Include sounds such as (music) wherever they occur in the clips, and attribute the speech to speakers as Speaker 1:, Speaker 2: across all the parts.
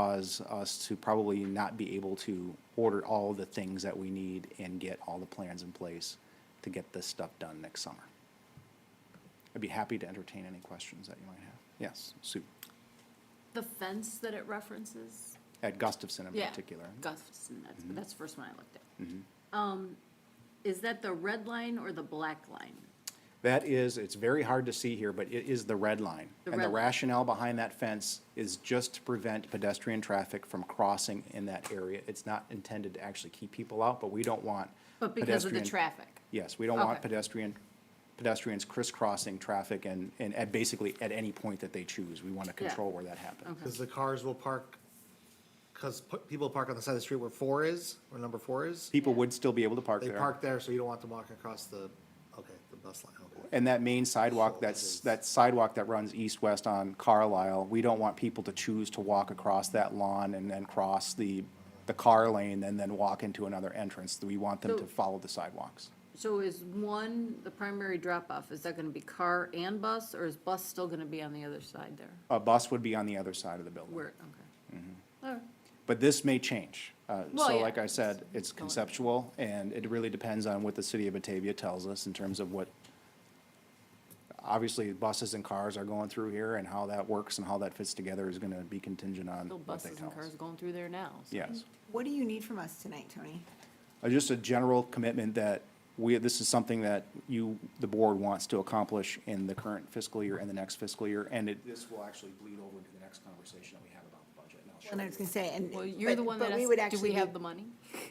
Speaker 1: cause us to probably not be able to order all the things that we need and get all the plans in place to get this stuff done next summer. I'd be happy to entertain any questions that you might have. Yes, Sue,
Speaker 2: The fence that it references?
Speaker 1: at Gustafson in
Speaker 2: Yeah,
Speaker 1: particular. Mm-hmm.
Speaker 2: Gustafson, that's, that's the first one I looked at. Um, is that the red line or the black line?
Speaker 1: That is, it's very hard to see here, but it is the red line.
Speaker 2: The
Speaker 1: And the
Speaker 2: red line.
Speaker 1: rationale behind that fence is just to prevent pedestrian traffic from crossing in that area. It's not intended to actually keep people out, but we don't want
Speaker 2: But because of the
Speaker 1: pedestrian-
Speaker 2: traffic?
Speaker 1: Yes, we don't want
Speaker 2: Okay.
Speaker 1: pedestrian, pedestrians crisscrossing traffic and, and at basically at any point that they choose. We want to control where that happens.
Speaker 2: Okay,
Speaker 3: Because the cars will park, because people park on the side of the street where four is, where number four is.
Speaker 1: People would still be able to park
Speaker 3: They
Speaker 1: there.
Speaker 3: park there, so you don't want them walking across the, okay, the bus line, okay.
Speaker 1: And that main sidewalk, that's, that sidewalk that runs east-west on Carlisle, we don't want people to choose to walk across that lawn and then cross the, the car lane and then walk into another entrance. We want them to
Speaker 2: So-
Speaker 1: follow the sidewalks.
Speaker 2: so is one, the primary drop-off, is that gonna be car and bus, or is bus still gonna be on the other side there?
Speaker 1: A bus would be on the other side of the building.
Speaker 2: Where, okay.
Speaker 1: Mm-hmm.
Speaker 2: All right.
Speaker 1: But this may change. Uh,
Speaker 2: Well,
Speaker 1: So
Speaker 2: yeah.
Speaker 1: like I said, it's conceptual, and it really depends on what the city of Batavia tells us in terms of what, obviously, buses and cars are going through here, and how that works and how that fits together is gonna be contingent on
Speaker 2: Still
Speaker 1: what they
Speaker 2: buses
Speaker 1: tell
Speaker 2: and cars
Speaker 1: us.
Speaker 2: going through there now. so-
Speaker 1: Yes.
Speaker 4: What do you need from us tonight, Tony?
Speaker 1: Uh, Just a general commitment that we, this is something that you, the board wants to accomplish in the current fiscal year and the next fiscal year, and it. This will actually bleed over into the next conversation that we have about the budget, and I'll show
Speaker 4: And I was gonna say, and.
Speaker 2: Well, you're the
Speaker 4: but-
Speaker 2: one
Speaker 4: but
Speaker 2: that
Speaker 4: we would
Speaker 2: asked, do
Speaker 4: actually
Speaker 2: we
Speaker 4: be-
Speaker 2: have the money?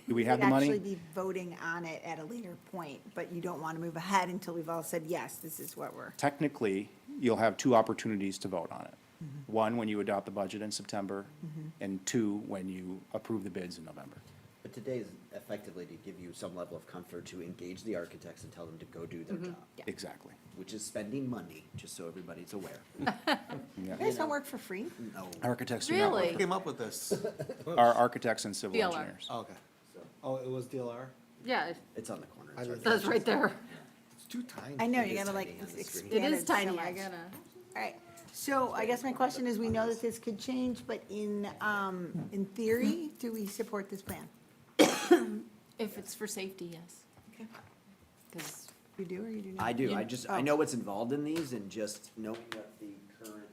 Speaker 1: Do we have the
Speaker 4: We'd
Speaker 1: money?
Speaker 4: (laughs) actually be voting on it at a later point, but you don't want to move ahead until we've all said, yes, this is what we're.
Speaker 1: Technically, you'll have two opportunities to vote on it. One, when you adopt the budget in September, and two, when you approve the bids in November.
Speaker 5: But today is effectively to give you some level of comfort to engage the architects and tell them to go do their
Speaker 4: Mm-hmm.
Speaker 5: job,
Speaker 1: Exactly.
Speaker 5: which is spending money, just so everybody's
Speaker 4: (laughs)
Speaker 5: aware.
Speaker 4: You guys don't work for free?
Speaker 5: No.
Speaker 1: Architects do not work-
Speaker 2: Really?
Speaker 3: Came up with this.
Speaker 1: Are architects and civil
Speaker 2: DLR.
Speaker 1: engineers.
Speaker 3: (laughs) Okay. Oh, it was DLR?
Speaker 2: Yeah, it-
Speaker 5: It's on the corner.
Speaker 3: I
Speaker 5: it's
Speaker 3: live-
Speaker 2: that's right there.
Speaker 3: It's too tiny.
Speaker 4: I know,
Speaker 5: It
Speaker 4: you
Speaker 5: is
Speaker 4: gotta like
Speaker 5: tiny on the screen.
Speaker 2: It
Speaker 4: expand
Speaker 2: is
Speaker 4: so
Speaker 2: tiny, I
Speaker 4: much.
Speaker 2: gotta,
Speaker 4: All right, so I guess my question is, we know that this could change, but in, um, in theory, do we support this plan?
Speaker 2: if it's for safety, yes. Because
Speaker 4: You do or you oh. do not?
Speaker 5: I do,
Speaker 2: You-
Speaker 5: I just, I know what's involved in these and just knowing what the current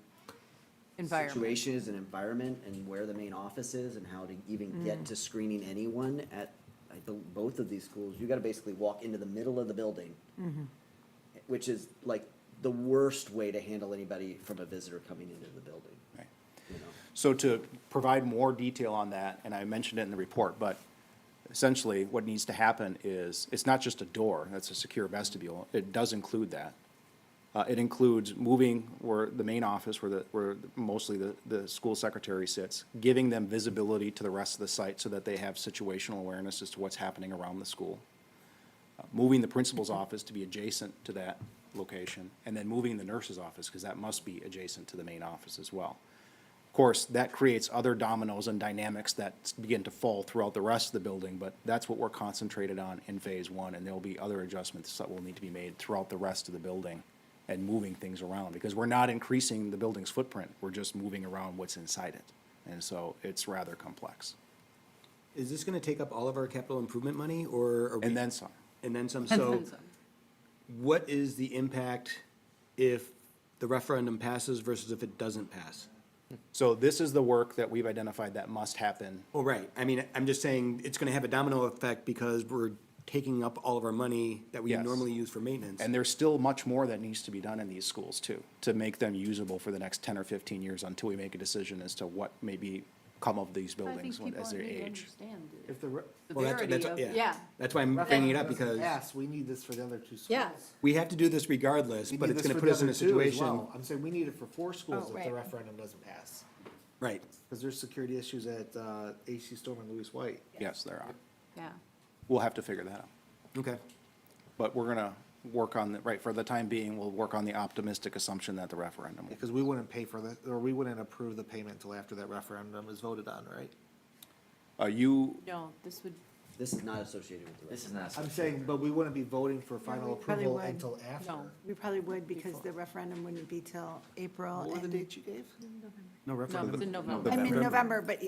Speaker 2: environment,
Speaker 5: situation is and environment and where the main office is and how to even get to screening anyone at, I bel both of these schools, you gotta basically walk into the middle of the building. Which is like the worst way to handle anybody from a visitor coming into the building,
Speaker 1: Right.
Speaker 5: you know?
Speaker 1: So to provide more detail on that, and I mentioned it in the report, but essentially what needs to happen is, it's not just a door, that's a secure vestibule, it does include that. Uh, it includes moving where the main office, where the, where mostly the, the school secretary sits, giving them visibility to the rest of the site so that they have situational awareness as to what's happening around the school. Uh, Moving the principal's office to be adjacent to that location, and then moving the nurse's office, because that must be adjacent to the main office as well. Of course, that creates other dominoes and dynamics that s- begin to fall throughout the rest of the building, but that's what we're concentrated on in phase one, and there'll be other adjustments that will need to be made throughout the rest of the building and moving things around, because we're not increasing the building's footprint, we're just moving around what's inside it. And so it's rather complex.
Speaker 6: Is this gonna take up all of our capital improvement money, or? are we-
Speaker 1: And then some.
Speaker 6: And then
Speaker 2: (laughs)
Speaker 6: some, so
Speaker 2: then
Speaker 6: what is the impact if the referendum passes versus if it doesn't pass?
Speaker 1: So this is the work that we've identified that must happen.
Speaker 6: Well, right, I mean, I'm just saying, it's gonna have a domino effect because we're taking up all of our money that we
Speaker 1: Yes.
Speaker 6: normally use for maintenance.
Speaker 1: And there's still much more that needs to be done in these schools too, to make them usable for the next ten or fifteen years until we make a decision as to what may be come of these
Speaker 2: I think
Speaker 1: buildings when-
Speaker 2: people
Speaker 1: as they
Speaker 2: need to
Speaker 1: age.
Speaker 2: understand it.
Speaker 3: If the, re-
Speaker 6: Well, that's- that's-
Speaker 2: severity of- yeah.
Speaker 6: That's why I'm bringing it up, because
Speaker 3: yes, we need this for the other two schools.
Speaker 2: Yeah.
Speaker 6: we have to do this regardless,
Speaker 3: We
Speaker 6: but
Speaker 3: need
Speaker 6: it's
Speaker 3: this
Speaker 6: gonna
Speaker 3: for
Speaker 6: put
Speaker 3: the
Speaker 6: us in
Speaker 3: other
Speaker 6: a
Speaker 3: two as
Speaker 6: situation.
Speaker 3: well. I'm saying we need it for four schools
Speaker 4: Oh,
Speaker 3: if the
Speaker 4: right.
Speaker 3: referendum doesn't pass.
Speaker 6: Right,
Speaker 3: Because there's security issues at, uh, AC Storm and Louis White.
Speaker 1: Yes, there are.
Speaker 2: Yeah.
Speaker 1: We'll have to figure that out.
Speaker 6: okay,
Speaker 1: But we're gonna work on, the right, for the time being, we'll work on the optimistic assumption that the referendum. will-
Speaker 3: Because we wouldn't pay for the, or we wouldn't approve the payment until after that referendum is voted on, right?
Speaker 1: Uh, you,
Speaker 2: No, this would,
Speaker 5: This is not associated with the
Speaker 7: This is
Speaker 5: rest.
Speaker 7: not.
Speaker 3: I'm saying, but we wouldn't be voting for final
Speaker 4: we probably
Speaker 3: approval
Speaker 4: would.
Speaker 3: until after.
Speaker 2: No.
Speaker 4: We probably would because the referendum wouldn't be till April.
Speaker 3: What were the
Speaker 4: and-
Speaker 3: dates you gave?
Speaker 2: No, it's in November.
Speaker 4: I mean, November, but